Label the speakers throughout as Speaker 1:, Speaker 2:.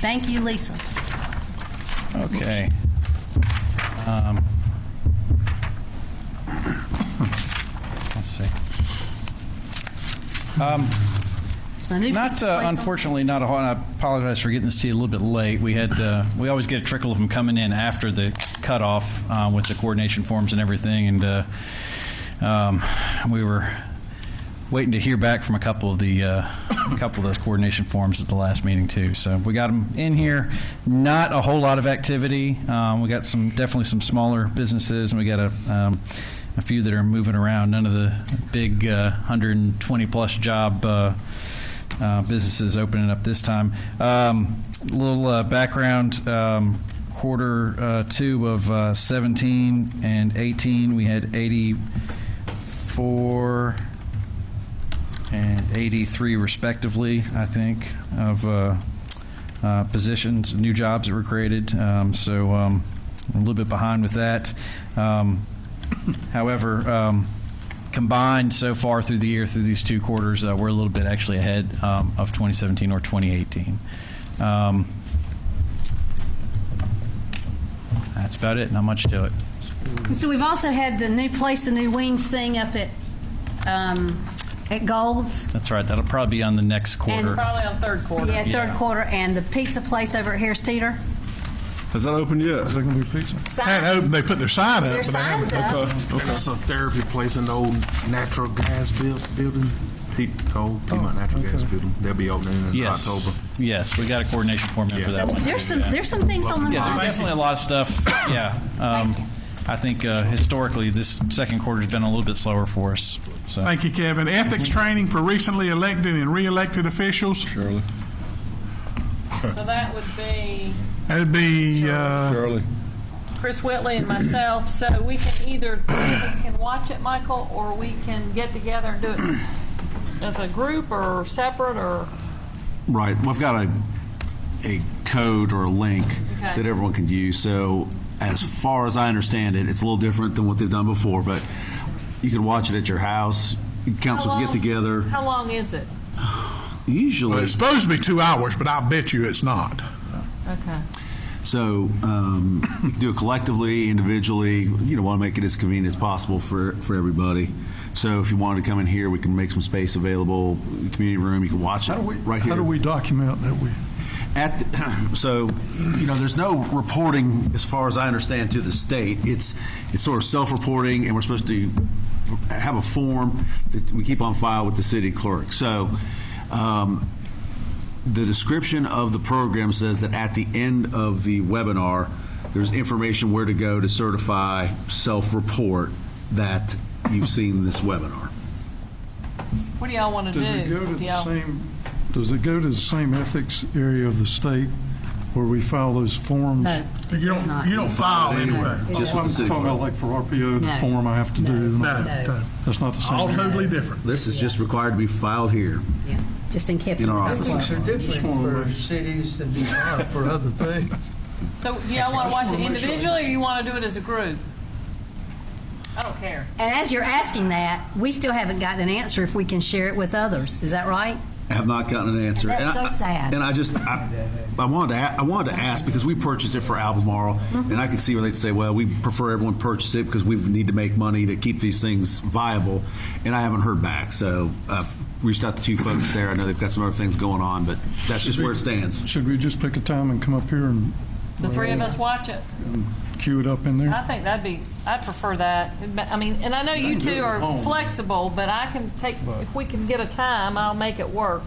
Speaker 1: Thank you, Lisa.
Speaker 2: Okay. Um, Let's see.
Speaker 1: I knew-
Speaker 2: Not, uh,
Speaker 1: Lisa?
Speaker 2: unfortunately, not a whole, and I apologize for getting this to you a little bit late. We had, uh, we always get a trickle of them coming in after the cutoff uh, with the coordination forms and everything, and uh, um, we were waiting to hear back from a couple of the, uh, a couple of those coordination forms at the last meeting, too. So we got them in here. Not a whole lot of activity. Um, We got some, definitely some smaller businesses, and we got a, um, a few that are moving around. None of the big uh, 120-plus job uh, uh, businesses opening up this time. Um, little uh, background. Um, Quarter uh, two of uh, 17 and 18, we had 84 and 83 respectively, I think, of uh, uh, positions, new jobs that were created. Um, so um, a little bit behind with that. Um, however, um, combined so far through the year, through these two quarters, uh, we're a little bit actually ahead um, of 2017 or 2018. Um, that's about it. Not much to it.
Speaker 1: And So we've also had the new place, the new wings thing up at, um, at Gold's.
Speaker 2: That's right. That'll probably be on the next quarter.
Speaker 3: Probably on third quarter.
Speaker 1: Yeah, third
Speaker 2: Yeah.
Speaker 1: quarter, and the pizza place over at Harris Teeter.
Speaker 4: Has that opened yet? Is that gonna be pizza?
Speaker 5: Had opened, they put their sign up.
Speaker 1: Their
Speaker 5: but they haven't-
Speaker 1: signs up.
Speaker 6: And that's a therapy place in the old natural gas buil- building, Pe- old Piedmont oh, Natural Gas Building. They'll be opening in
Speaker 2: Yes.
Speaker 6: October.
Speaker 2: Yes, we got a coordination form in for
Speaker 6: Yeah.
Speaker 2: that one.
Speaker 1: There's
Speaker 2: too,
Speaker 1: some,
Speaker 2: yeah.
Speaker 1: there's some things on the
Speaker 2: Yeah,
Speaker 1: mind.
Speaker 2: there's definitely a lot of stuff. Yeah. Um,
Speaker 1: Thank you.
Speaker 2: I think uh, historically, this second quarter's been a little bit slower for us. So
Speaker 5: Thank you, Kevin. Ethics training for recently elected and re-elected officials.
Speaker 4: Shirley.
Speaker 3: So that would be
Speaker 5: That'd be, uh,
Speaker 4: Shirley.
Speaker 3: Chris Whitley and myself. So we can either, three of us can watch it, Michael, or we can get together and do it as a group or separate or,
Speaker 7: Right. We've got a, a code or a link
Speaker 3: Okay.
Speaker 7: that everyone can use. So as far as I understand it, it's a little different than what they've done before, but you can watch it at your house. Council
Speaker 3: How long?
Speaker 7: can get together.
Speaker 3: how long is it?
Speaker 5: well,
Speaker 7: Usually,
Speaker 5: it's supposed to be two hours, but I bet you it's not.
Speaker 3: Okay.
Speaker 7: so um, you can do it collectively, individually. You know, want to make it as convenient as possible for, for everybody. So if you wanted to come in here, we can make some space available, community room. You can watch it
Speaker 8: How do we,
Speaker 7: right here.
Speaker 8: how do we document that we,
Speaker 7: At, the- so, you know, there's no reporting, as far as I understand, to the state. It's, it's sort of self-reporting, and we're supposed to have a form that we keep on file with the city clerk. So, um, the description of the program says that at the end of the webinar, there's information where to go to certify, self-report that you've seen this webinar.
Speaker 3: What do y'all want to do?
Speaker 8: does it go to
Speaker 3: Do
Speaker 8: the
Speaker 3: y'all-
Speaker 8: same, does it go to the same ethics area of the state where we file those forms?
Speaker 1: No,
Speaker 5: You
Speaker 1: it's not.
Speaker 5: don't, you don't file anyway.
Speaker 7: Just
Speaker 8: I'm
Speaker 7: with the city
Speaker 8: talking about
Speaker 7: clerk.
Speaker 8: like for
Speaker 1: No.
Speaker 8: RPO, the form I have to do. and all
Speaker 5: No,
Speaker 8: that.
Speaker 5: no.
Speaker 8: That's not the same.
Speaker 5: All
Speaker 8: area.
Speaker 5: totally different.
Speaker 7: This is just required to be filed here
Speaker 1: Yeah, Just in kept.
Speaker 7: in our office.
Speaker 9: Things are different for cities than they are for other things.
Speaker 3: So do y'all want to watch it individually or you want to do it as a group? I don't care.
Speaker 1: And as you're asking that, we still haven't gotten an answer if we can share it with others. Is that right?
Speaker 7: have not gotten an answer.
Speaker 1: That's
Speaker 7: And
Speaker 1: so
Speaker 7: I-
Speaker 1: sad.
Speaker 7: And I just, I, I wanted to, a- I wanted to ask because we purchased it for Albemarle,
Speaker 1: Mm-hmm.
Speaker 7: and I could see where they'd say, well, we prefer everyone purchase it because we need to make money to keep these things viable. And I haven't heard back, so I've reached out to two folks there. I know they've got some other things going on, but that's just where it stands.
Speaker 8: Should we just pick a time and come up here and
Speaker 3: The three of us watch it.
Speaker 8: queue it up in there?
Speaker 3: I think that'd be, I'd prefer that. But, I mean, and I know you two are flexible, but I can take, if we can get a time, I'll make it work.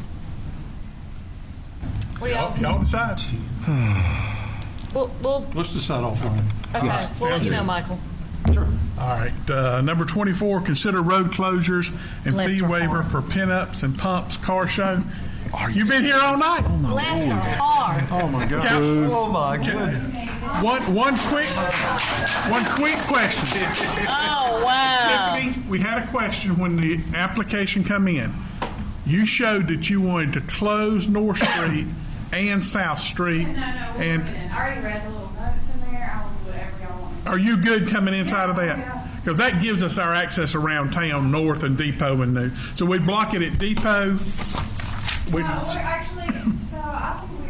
Speaker 3: We all,
Speaker 5: Y'all y'all decide.
Speaker 3: we'll, we'll,
Speaker 8: Let's decide offline.
Speaker 3: okay, we'll let you know, Michael.
Speaker 5: All right, uh, number 24, consider road closures and
Speaker 1: Bless
Speaker 5: fee
Speaker 1: her
Speaker 5: waiver for pinups and pumps car show. You've been here all night.
Speaker 4: Oh,
Speaker 1: Bless her heart.
Speaker 8: Oh, my God.
Speaker 5: Council-
Speaker 9: Oh, my goodness.
Speaker 5: One, one quick, one quick question.
Speaker 3: Oh,
Speaker 10: Um,
Speaker 3: wow.
Speaker 5: Tiffany, we had a question when the application come in. You showed that you wanted to close North Street and South Street.
Speaker 10: No, no, we're
Speaker 5: And
Speaker 10: winning. I already read the little notes in there. I will do whatever y'all want.
Speaker 5: are you good coming inside of that? Because that gives us our access around town, north and Depot and new. So we block it at Depot. We,
Speaker 10: No, we're actually, so